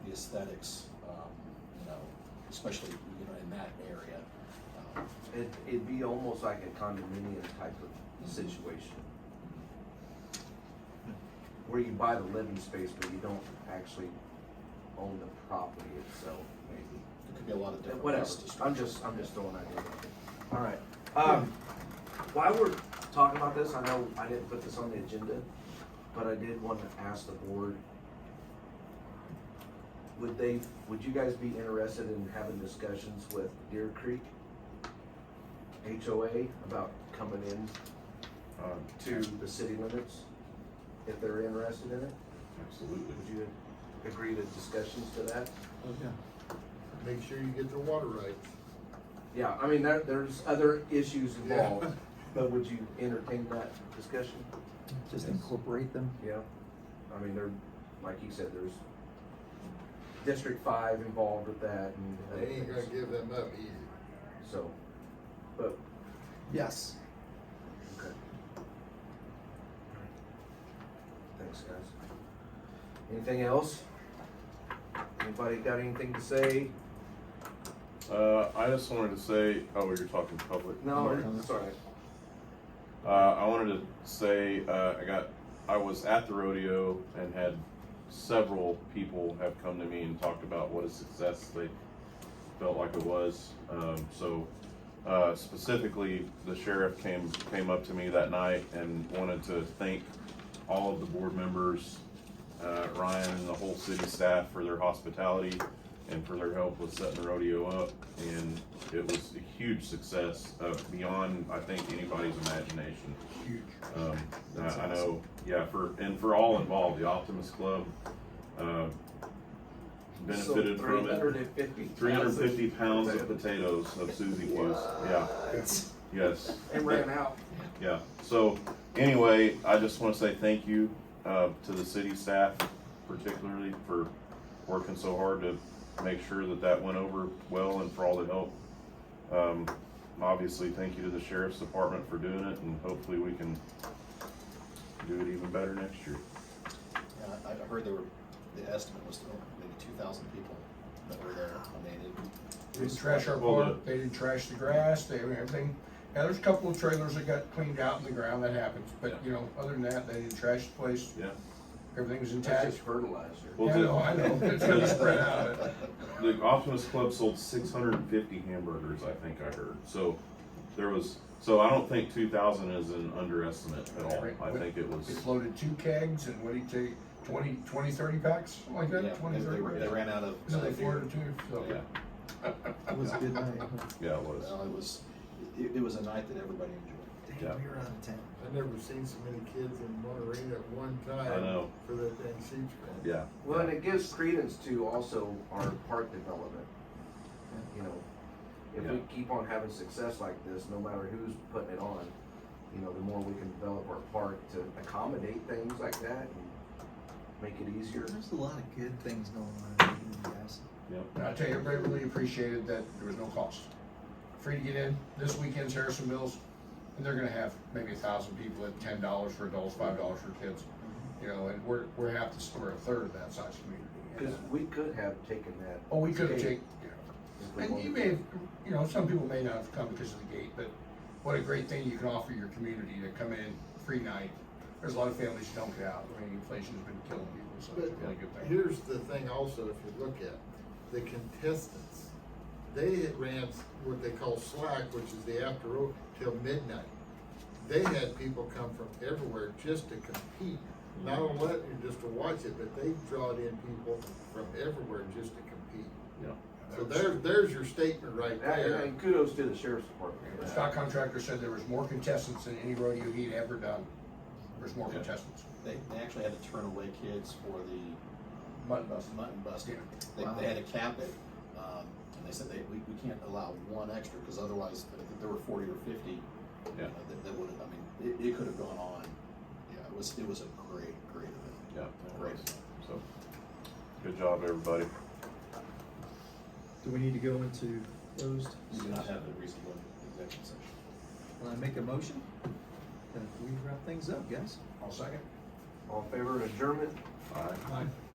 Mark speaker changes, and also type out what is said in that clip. Speaker 1: the aesthetics, um, you know, especially, you know, in that area. Um,
Speaker 2: It, it'd be almost like a condominium type of situation, where you buy the living space, but you don't actually own the property itself, maybe.
Speaker 1: There could be a lot of different.
Speaker 2: Whatever,
Speaker 1: ways to structure
Speaker 2: I'm
Speaker 1: it.
Speaker 2: just, I'm just throwing ideas out there. Alright, um,
Speaker 1: Hmm.
Speaker 2: while we're talking about this, I know I didn't put this on the agenda, but I did want to ask the board. Would they, would you guys be interested in having discussions with Deer Creek? HOA about coming in
Speaker 3: Um,
Speaker 2: to the city limits, if they're interested in it?
Speaker 3: absolutely.
Speaker 2: Would you agree to discussions to that?
Speaker 4: Make sure you get their water rights.
Speaker 2: Yeah, I mean, there, there's other issues
Speaker 4: Yeah.
Speaker 2: involved, but would you entertain that discussion?
Speaker 5: Just
Speaker 3: Yes.
Speaker 5: incorporate them.
Speaker 2: Yeah. I mean, there, like you said, there's District Five involved with that and other
Speaker 4: They ain't gonna
Speaker 2: things,
Speaker 4: give them up easy.
Speaker 2: so, but,
Speaker 5: Yes.
Speaker 2: okay. Thanks, guys. Anything else? Anybody got anything to say?
Speaker 3: Uh, I just wanted to say, oh, you're talking public.
Speaker 2: No,
Speaker 3: Mark.
Speaker 2: it's all right.
Speaker 3: Uh, I wanted to say, uh, I got, I was at the rodeo and had several people have come to me and talked about what a success they felt like it was. Um, so, uh, specifically, the sheriff came, came up to me that night and wanted to thank all of the board members, uh, Ryan and the whole city staff for their hospitality and for their help with setting the rodeo up. And it was a huge success, uh, beyond, I think, anybody's imagination.
Speaker 4: Huge.
Speaker 3: Um, I, I know, yeah, for, and for all involved, the Optimist Club, uh, benefited from
Speaker 2: Three hundred
Speaker 3: it.
Speaker 2: and fifty.
Speaker 3: Three hundred and fifty pounds of potatoes of Susie was, yeah, yes.
Speaker 2: And ran out.
Speaker 3: Yeah, so anyway, I just wanna say thank you, uh, to the city staff particularly for working so hard to make sure that that went over well and for all the help. Um, obviously, thank you to the sheriff's department for doing it and hopefully we can do it even better next year.
Speaker 1: Yeah, I, I heard there were, the estimate was oh, maybe two thousand people that were there. I mean, it,
Speaker 6: They didn't trash our
Speaker 3: Well,
Speaker 6: park, they didn't trash the grass, they, everything. Yeah, there's a couple of trailers that got cleaned out in the ground, that happens, but, you know, other than that, they didn't trash the place,
Speaker 3: Yeah.
Speaker 6: everything's
Speaker 2: That's
Speaker 6: intact.
Speaker 2: just fertilizer.
Speaker 3: Well,
Speaker 6: Yeah, I
Speaker 3: the-
Speaker 6: know, I know, it's really spread out.
Speaker 3: The Optimus Club sold 650 hamburgers, I think I heard. So there was, so I don't think 2,000 is an underestimate at all.
Speaker 6: Right.
Speaker 3: I think it was,
Speaker 6: It's loaded two kegs and what do you take, twenty, twenty, thirty packs, something like
Speaker 1: yeah,
Speaker 6: that, twenty,
Speaker 1: they- they,
Speaker 6: thirty?
Speaker 1: were- they ran out of.
Speaker 6: Is it like
Speaker 1: beer.
Speaker 6: four or two, so.
Speaker 3: yeah,
Speaker 5: It was a good night. huh?
Speaker 3: yeah, it was.
Speaker 1: Well, it was, it, it was a night that everybody enjoyed.
Speaker 3: Yeah.
Speaker 5: we were out of town.
Speaker 4: I've never seen so many kids in Monterey at one time.
Speaker 3: I know.
Speaker 4: For that damn siege grant.
Speaker 3: Yeah.
Speaker 2: Well, and it gives credence to also our park development. You know, if we
Speaker 3: Yeah.
Speaker 2: keep on having success like this, no matter who's putting it on, you know, the more we can develop our park to accommodate things like that and make it easier.
Speaker 5: There's a lot of good things going on in Eden, guys.
Speaker 6: And I tell you, everybody really appreciated that there was no cost. Free to get in, this weekend's Harrison Mills, and they're gonna have maybe a thousand people at ten dollars for adults, five dollars for kids. You know, and we're, we're half the store, a third of that size
Speaker 2: Cause
Speaker 6: community. uh,
Speaker 2: we could have taken that.
Speaker 6: Oh, we could have
Speaker 2: gate
Speaker 6: taken,
Speaker 2: if we
Speaker 6: and you
Speaker 2: wanted
Speaker 6: may,
Speaker 2: to.
Speaker 6: have you know, some people may not have come because of the gate, but what a great thing you can offer your community to come in, free night. There's a lot of families who don't get out, I mean, inflation's been killing people, so
Speaker 4: But
Speaker 6: it's a really good thing.
Speaker 4: here's the thing also, if you look at, the contestants, they had ran what they call slack, which is the after road, till midnight. They had people come from everywhere just to compete, not only just to watch it, but they drawed in people from everywhere just to compete.
Speaker 3: Yeah.
Speaker 4: So there, there's your statement right
Speaker 2: And-
Speaker 4: there.
Speaker 2: And kudos to the sheriff's department.
Speaker 6: The stock contractor said there was more contestants than any rodeo he'd ever done. There's more contestants.
Speaker 1: They, they actually had to turn away kids for the.
Speaker 6: Mutton bust.
Speaker 1: Mutton bust.
Speaker 6: Yeah.
Speaker 1: They,
Speaker 5: Wow.
Speaker 1: they had to cap it, um, and they said they, we, we can't allow one extra, cause otherwise, I think there were forty or fifty. you
Speaker 3: Yeah.
Speaker 1: know, That, that would've, I mean, it, it could've gone on, yeah, it was, it was a great, great event,
Speaker 3: Yeah.
Speaker 1: great event.
Speaker 3: So good job, everybody.
Speaker 5: Do we need to go into closed?
Speaker 1: We do not have a reasonable executive session.
Speaker 5: Will I make a motion? That we wrap things up, guys?
Speaker 6: I'll second.
Speaker 2: All in favor of adjournment?
Speaker 3: All right.